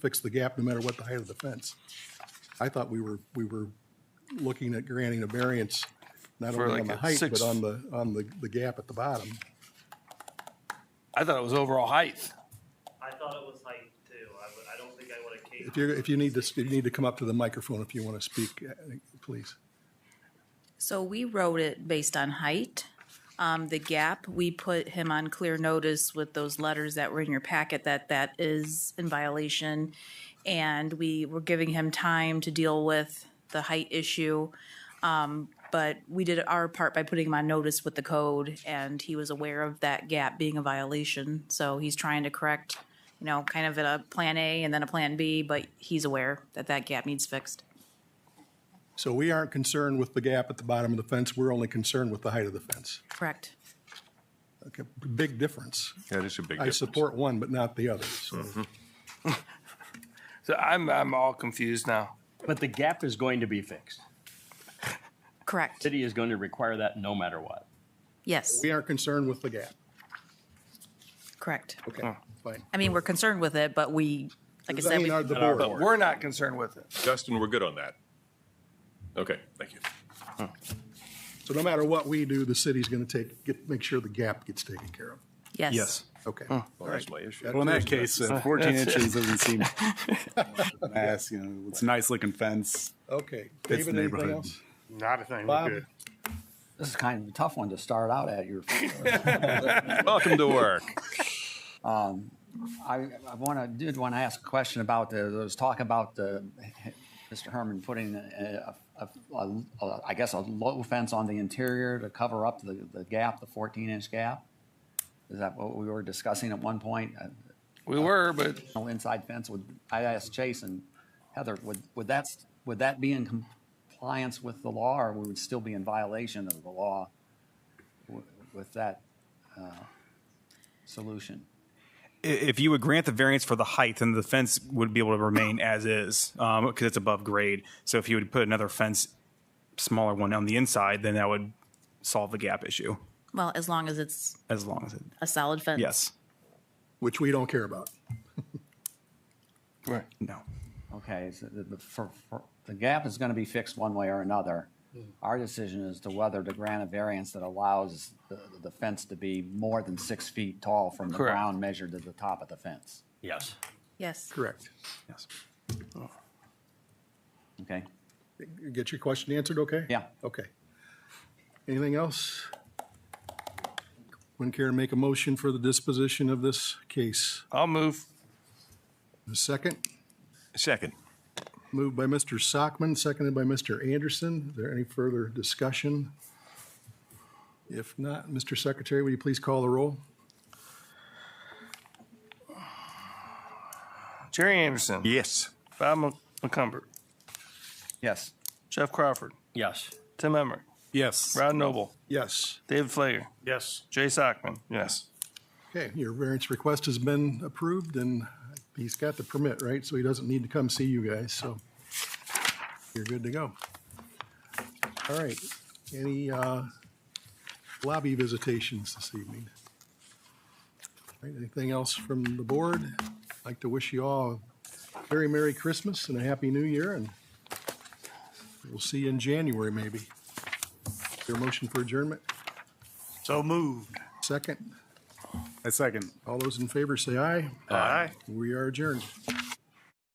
fix the gap no matter what the height of the fence. I thought we were, we were looking at granting a variance, not For only on like the a height, six- but on the, on the, the gap at the bottom. I thought it was overall height. I thought it was height too. I would, I don't think I would have came. If you, if you need to, if you need to come up to the microphone if you want to speak, uh, please. So we wrote it based on height. Um, the gap, we put him on clear notice with those letters that were in your packet that that is in violation. And we were giving him time to deal with the height issue. Um, but we did our part by putting him on notice with the code and he was aware of that gap being a violation. So he's trying to correct, you know, kind of a plan A and then a plan B, but he's aware that that gap needs fixed. So we aren't concerned with the gap at the bottom of the fence, we're only concerned with the height of the fence. Correct. Okay, big difference. That is a big I difference. support one, but not the other, so. So I'm, I'm all confused now. But the gap is going to be fixed. Correct. City is going to require that no matter what. Yes, We aren't concerned with the gap. correct. Okay, fine. I mean, we're concerned with it, but we, like I I said, mean, we- are the Not our board. But we're not concerned with it. Justin, we're good on that. Okay, thank you. So no matter what we do, the city's going to take, get, make sure the gap gets taken care of. yes. Yes. Okay. Well, that's my issue. Well, in that case, uh, 14 inches doesn't seem mass. You know, it's a nice looking fence. Okay. the David, anything neighborhood. else? Not a thing. Bob? We're good. This is kind of a tough one to start out at. Your, Welcome to work. I, I want to did want to ask a question about the. There was talk about the Mr. Herman putting a, a, a, a, I guess a low fence on the interior to cover up the, the gap, the 14 inch gap. Is that what we were discussing at one point? Uh, We were, but No inside fence. Would I asked Chase and Heather? Would would that would that be in compliance with the law, or we would still be in violation of the law w- with that uh, solution? I- If you would grant the variance for the height, then the fence would be able to remain as is because it's above grade. So if you would put another fence, smaller one on the inside, then that would solve the gap issue Well, as long as it's as long as it. a solid fence. Yes. Which we don't care about. No. Okay, so the, the, for, for, the gap is gonna be fixed one way or another. Our decision is to whether to grant a variance that allows the, the fence to be more than six feet tall from the Correct. ground measured to the top of the fence. Yes. Yes. Correct. Yes. Okay, Get your question answered, okay? Yeah. Okay. Anything else? Wouldn't care to make a motion for the disposition of this case. I'll move. A second, Second. moved by Mr. Sockman, seconded by Mr. Anderson. Is there any further discussion? If not, Mr. Secretary, will you please call the roll? Jerry Anderson. Yes. Bob Mc- McCumber. yes. Jeff Crawford. Yes. Tim Emmer. Yes. Rod Noble. Yes. David Flager. Yes. Jay Sockman. Yes. Okay, your variance request has been approved, and he's got the permit, right? So he doesn't need to come see you guys, so you're good to go. All right, any uh, lobby visitations this evening? All right, Anything else from the board? I'd like to wish you all a very Merry Christmas and a Happy New Year, and we'll see you in January, maybe. Your motion for adjournment, So moved. second. A second. All those in favor say aye. Aye. We are adjourned.